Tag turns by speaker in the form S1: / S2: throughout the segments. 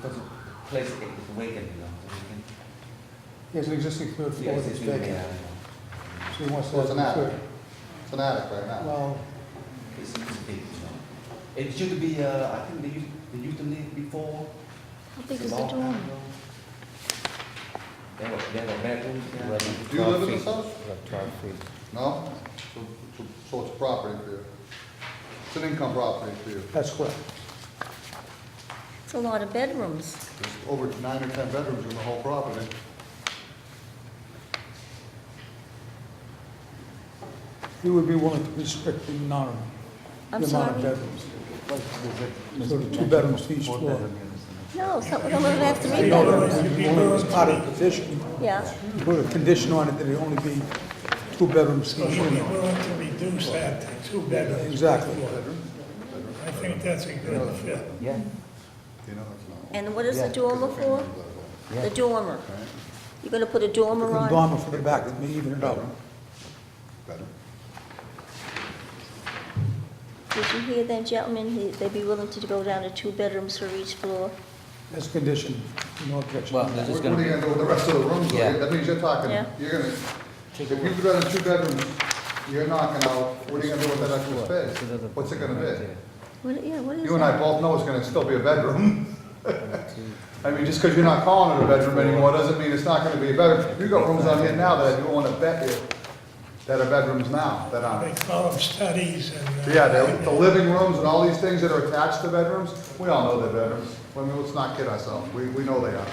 S1: Because the place is vacant, you know. vacant.
S2: He has an existing third floor
S1: Yes,
S2: that's
S1: it's vacant.
S2: vacant, so he wants to
S3: So it's
S2: have
S3: an
S2: a
S3: attic,
S2: third.
S3: it's an attic right now.
S2: Well,
S1: It's, it's big, you know. It should be, uh, I think they used, they used to live before.
S4: How big
S1: It's a
S4: is the
S1: long time
S4: dorm?
S1: ago. There were, there were bedrooms there.
S3: Do you live in this house?
S5: Twelve feet.
S3: No? So, so- so it's a property for you? It's an income property for you?
S2: that's correct.
S4: It's a lot of bedrooms.
S3: There's over nine or 10 bedrooms in the whole property.
S2: He would be willing to restrict the norm, the amount
S4: I'm
S2: of
S4: sorry.
S2: bedrooms. So two bedrooms to each floor.
S4: No, some of them have three
S2: You know,
S4: bedrooms.
S2: it was part of the petition,
S4: Yeah,
S2: put a condition on it that it only be two bedrooms
S6: So
S2: each
S6: you'd be
S2: unit.
S6: willing to reduce that to two bedrooms?
S2: Exactly.
S6: I think that's a good fit.
S5: Yeah,
S3: You know, it's not.
S4: and what is the
S5: Yeah.
S4: dormer for? The dormer. You're gonna put a dormer
S2: The
S4: on?
S2: dormer for the back, that may even it out.
S3: Better.
S4: Did you hear that, gentlemen? He- They'd be willing to go down to two bedrooms for each floor?
S2: That's a condition, no objection.
S5: well, there's
S3: What
S5: just
S3: what are
S5: gonna
S3: you
S5: be,
S3: gonna do with the rest of the rooms? though?
S5: Yeah.
S3: That means you're talking,
S4: Yeah.
S3: you're gonna, if you've got a two bedrooms, you're knocking out, what are you gonna do with that extra space? What's it gonna be?
S4: What, yeah, what is
S3: You and I
S4: that?
S3: both know it's gonna still be a bedroom. I mean, just because you're not calling it a bedroom anymore, doesn't mean it's not gonna be a bedroom. You got rooms out here now that I don't wanna bet you that are bedrooms now, that
S6: They
S3: aren't.
S6: call them studies and. uh,
S3: Yeah, the, the living rooms and all these things that are attached to bedrooms, we all know they're bedrooms. I mean, let's not kid ourselves, we, we know they are.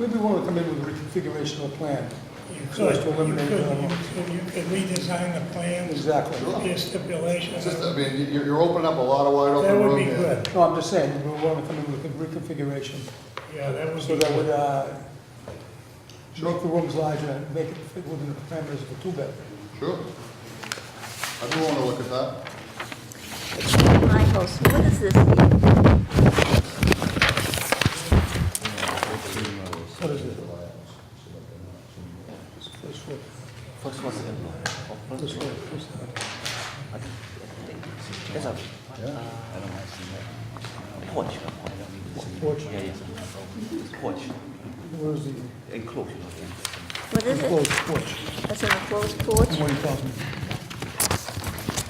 S2: We'd be willing to come in with a reconfiguration of the plan.
S6: You
S2: So
S6: could,
S2: as to
S6: you could, you
S2: eliminate that.
S6: could, you could redesign the plans,
S2: Exactly.
S6: be a stipulation.
S3: It's just, I
S6: That
S3: mean, you're, you're opening up a lot of wide open
S6: would be
S3: room here.
S6: good.
S2: No, I'm just saying, we're willing to come in with a reconfiguration,
S6: Yeah, that would
S2: so
S6: be
S2: that would,
S6: good.
S2: uh, make the rooms larger, and make it fit within the parameters of a two-bedroom.
S3: Sure. I do wanna look at that.
S4: Michael, so what is this? here?
S2: What is it? First floor,
S1: First one, second floor. Oh,
S2: first
S1: first
S2: floor,
S1: floor.
S2: first floor.
S1: That's a porch.
S2: Porch.
S1: Yeah, yeah. Porch,
S2: Where is the,
S1: enclosure. yeah.
S4: What is
S2: enclosed
S4: it?
S2: porch,
S4: That's an enclosed porch?
S2: what are you talking?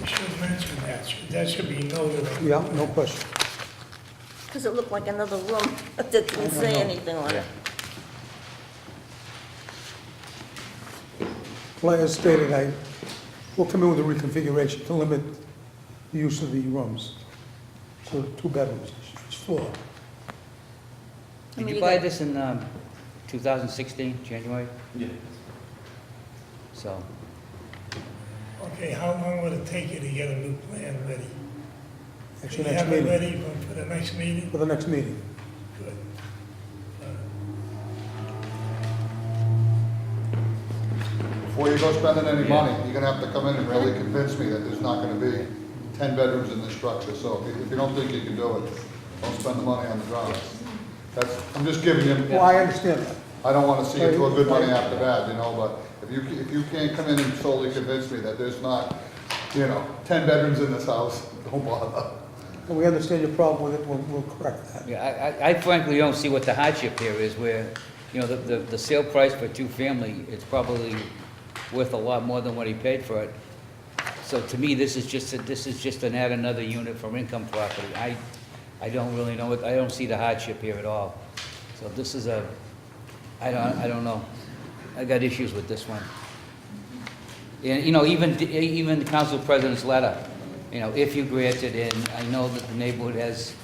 S6: You should mention that, Should- that should be noted.
S2: Yeah, no question.
S4: Because it looked like another room that didn't say anything on it.
S2: Like I stated, I, we'll come in with a reconfiguration to limit the use of the rooms. So two bedrooms, each floor.
S4: I mean, you
S5: did you buy
S4: got-
S5: this in, um, two thousand sixteen, January?
S1: Yeah.
S5: So,
S6: Okay, how long would it take you to get a new plan ready? Do
S2: Actually,
S6: you
S2: next
S6: have it
S2: meeting,
S6: ready for- for the next meeting?
S2: for the next meeting.
S6: Good.
S3: Before you go spending any money, you're gonna have to come in and really convince me that there's not gonna be ten bedrooms in this structure. So if you- if you don't think you can do it, don't spend the money on the drawings. That's, I'm just giving you.
S2: Well, I understand that.
S3: I don't wanna see you throw good money after bad, you know, but if you, if you can't come in and solely convince me that there's not, you know, ten bedrooms in this house, don't bother.
S2: And we understand your problem with it, we'll, we'll correct that.
S5: yeah, I- I, I frankly don't see what the hardship here is where, you know, the, the, the sale price for two-family, it's probably worth a lot more than what he paid for it. So to me, this is just, a- this is just an add another unit for income property. I, I don't really know, what- I don't see the hardship here at all. So this is a, I don't, I don't know. I got issues with this one. And, you know, even, even the council president's letter, you know, if you grant it, and I know that the neighborhood has,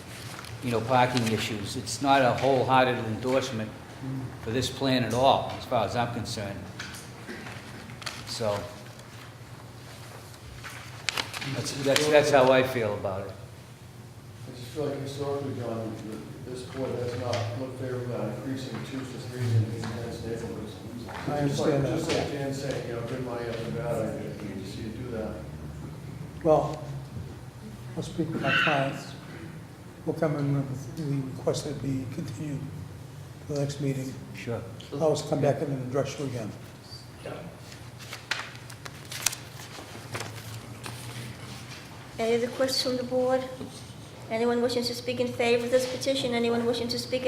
S5: you know, parking issues, it's not a wholehearted endorsement for this plan at all, as far as I'm concerned. So, that's, that's, that's how I feel about it.
S7: I just feel like historically, John, that this board has not looked favorably on increasing twos to threes in these dense neighborhoods.
S2: I
S7: Just like-
S2: understand that.
S7: Just like Dan's saying, you know, good money up and bad, I you see you do that.
S2: Well, I'll speak with my clients. We'll come in with the request that be continued to the next meeting.
S5: Sure.
S2: I'll always come back in and address you again.
S4: Any other questions from the board? Anyone wishing to speak in favor of this petition? Anyone wishing to speak